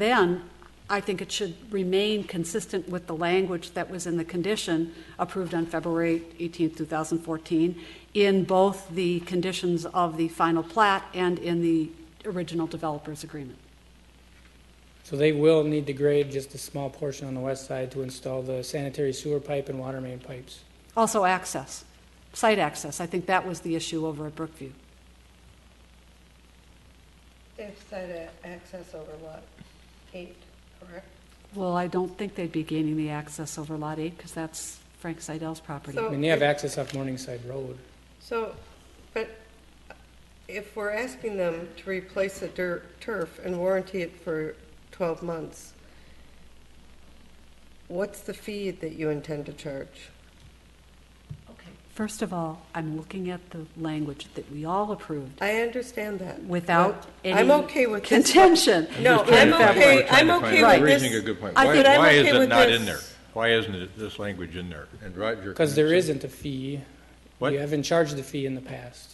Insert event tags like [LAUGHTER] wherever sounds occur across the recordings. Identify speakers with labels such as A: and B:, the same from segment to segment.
A: Then, I think it should remain consistent with the language that was in the condition approved on February 18, 2014, in both the conditions of the final plat and in the original developer's agreement.
B: So they will need to grade just a small portion on the west side to install the sanitary sewer pipe and water main pipes.
A: Also, access, site access, I think that was the issue over at Brookview.
C: They've said a- access over lot eight, correct?
A: Well, I don't think they'd be gaining the access over Lot 8, because that's Frank Seidel's property.
B: I
C: So-
B: mean, they have access off Morningside Road.
C: So, but if we're asking them to replace the dir- turf and warranty it for 12 months, what's the fee that you intend to charge?
A: First of all, I'm looking at the language that we all approved
C: I understand that.
A: without
C: but
A: any
C: I'm okay with this.
A: contention.
C: No,
A: in
C: I'm
A: February.
C: okay, I'm
D: Trying to
C: okay
D: find-
C: with
D: You're
C: this.
D: raising a good point.
A: I
D: Why,
C: think I'm
D: why
C: okay
D: is it
C: with
D: not
C: this.
D: in there? Why isn't it, this language in there? And Roger.
B: Because there
D: can-
B: isn't a fee.
D: What?
B: You haven't charged the fee in the past.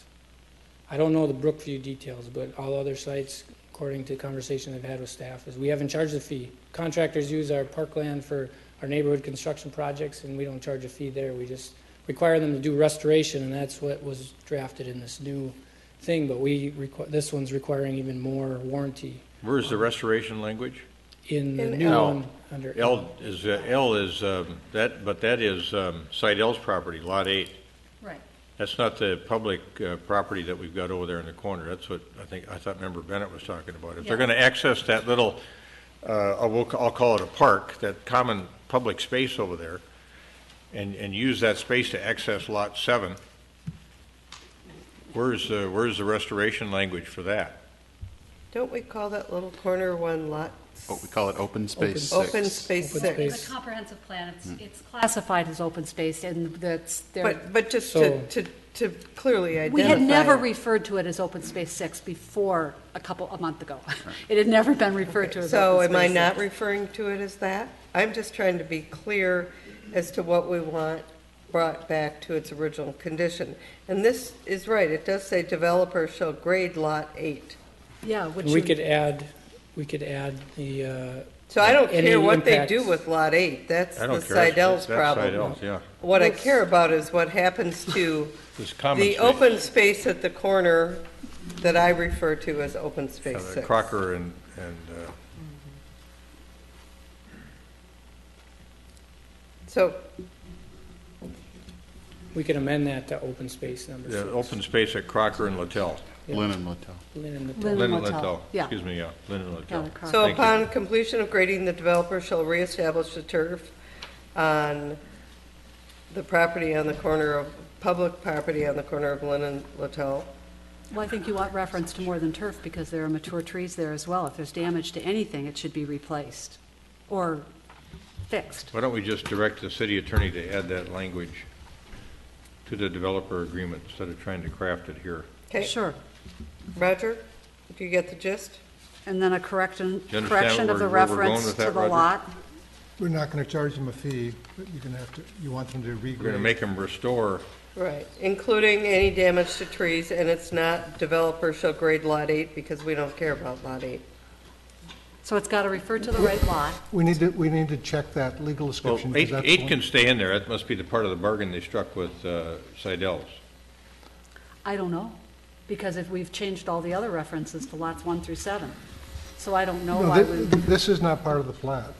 B: I don't know the Brookview details, but all other sites, according to conversation I've had with staff, is we haven't charged a fee. Contractors use our parkland for our neighborhood construction projects, and we don't charge a fee there. We just require them to do restoration, and that's what was drafted in this new thing, but we, requ- this one's requiring even more warranty
D: Where's the restoration language?
B: in the
C: In
B: new
D: L.
B: one under.
D: L is, uh, L is, um, that, but that is um, site L's property, Lot 8.
A: Right.
D: That's not the public uh, property that we've got over there in the corner. That's what I think, I thought Member Bennett was talking about. If they're
A: Yeah.
D: going to access that little, uh, I will- I'll call it a park, that common public space over there, and, and use that space to access Lot 7, where's, the- where's the restoration language for that?
C: Don't we call that little corner one lot?
E: what we call it open space
B: Open-
C: Open
E: six.
C: space
B: Open
C: six.
B: space.
F: The comprehensive plan,
B: Hmm.
F: it's, it's classified.
A: Classified as open space, and that's, there,
C: But, but just to, to, to clearly identify.
A: we had never
C: it.
A: referred to it as open space six before, a couple, a month ago. [LAUGHS] It had never been referred to as
C: So
A: open space.
C: am I
A: six.
C: not referring to it as that? I'm just trying to be clear as to what we want brought back to its original condition. And this is right, it does say developer shall grade lot eight.
A: Yeah, which
B: And we
A: you,
B: could add, we could add the, uh,
C: So I don't
B: Any
C: care what they do
B: impacts?
C: with lot eight, that's
D: I
C: the
D: don't care. That's
C: Sidell's problem.
D: Seidel's, yeah.
C: What I care about is
B: [LAUGHS]
C: what happens to
D: This common
C: the
D: space.
C: open space at the corner that I refer to as open space
D: Uh,
C: six.
D: Crocker and, and, uh,
C: So
B: we could amend that to open space number
D: the
B: six.
D: open space at Crocker and Littell.
E: Lynn and Littell.
B: Lynn and the-
A: Lynn
D: Lynn and
A: Littell.
D: Littell.
A: Yeah.
D: Excuse me, yeah, Lynn and Littell.
A: Yeah, Crocker.
C: So
D: Thank you.
C: upon completion of grading, the developer shall reestablish the turf on the property on the corner of, public property on the corner of Lynn and Littell.
A: well, I think you want reference to more than turf, because there are mature trees there as well. If there's damage to anything, it should be replaced or fixed.
D: Why don't we just direct the city attorney to add that language to the developer agreement instead of trying to craft it here?
C: Okay,
A: Sure.
C: Roger, do you get the gist?
A: And then a correction,
D: you understand
A: correction of the
D: where- where we're going
A: reference
D: with
A: to
D: that,
A: the
D: Roger?
A: lot.
G: We're not going to charge them a fee, but you're going to have to, you want them to regrade.
D: We're going to make them restore,
C: Right, including any damage to trees, and it's not developer shall grade lot eight because we don't care about lot eight.
A: So it's got to refer to the right lot.
G: We need to, we need to check that legal
D: well,
G: description. 'cause
D: eight,
G: that's
D: eight
G: one-
D: can stay in there, that must be the part of the bargain they struck with uh, Sidell's.
A: I don't know, because if we've changed all the other references to lots one through seven. So I don't know
G: No,
A: why
G: thi-
A: we,
G: this is not part of the plat.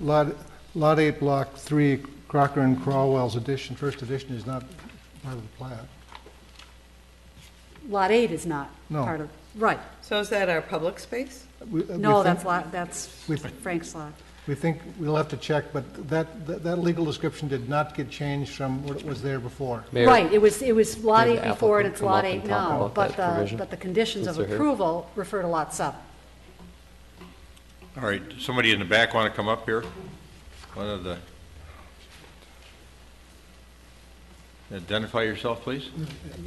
G: Lot, Lot 8, Block 3, Crocker and Crowell's edition, first edition is not part of the plat.
A: lot eight is not
G: No.
A: part of, right.
C: So is that our public space?
G: We- we
A: No,
G: think-
A: that's lot, that's
G: we-
A: Frank's lot.
G: We think, we'll have to check, but that, that that legal description did not get changed from what was there before.
A: Right, it was, it was lot
H: may
A: eight
H: the
A: before and
H: applicant
A: it's
H: come
A: lot
H: up and talk
A: eight now,
H: about
A: but
H: that
A: the,
H: provision?
A: but the conditions of
H: Since they're here.
A: approval refer to lot seven.
D: All right, somebody in the back want to come up here? One of the... Identify yourself, please.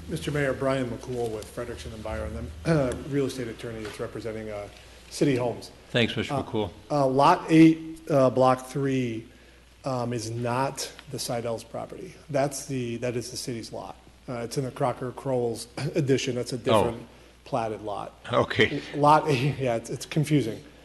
I: Mr. Mayor, Brian McCool with Frederickson and Byron, I'm a real estate attorney that's representing uh, City Homes.
D: Thanks, Mr. McCool.
I: Uh, Lot 8, uh, Block 3 um, is not the Sidell's property. [COUGHS] That's the, that is the city's lot. Uh, It's in the Crocker Crowell's addition, that's a different, platted lot.
D: Okay.
I: [LAUGHS] Lot, yeah, it's it's confusing.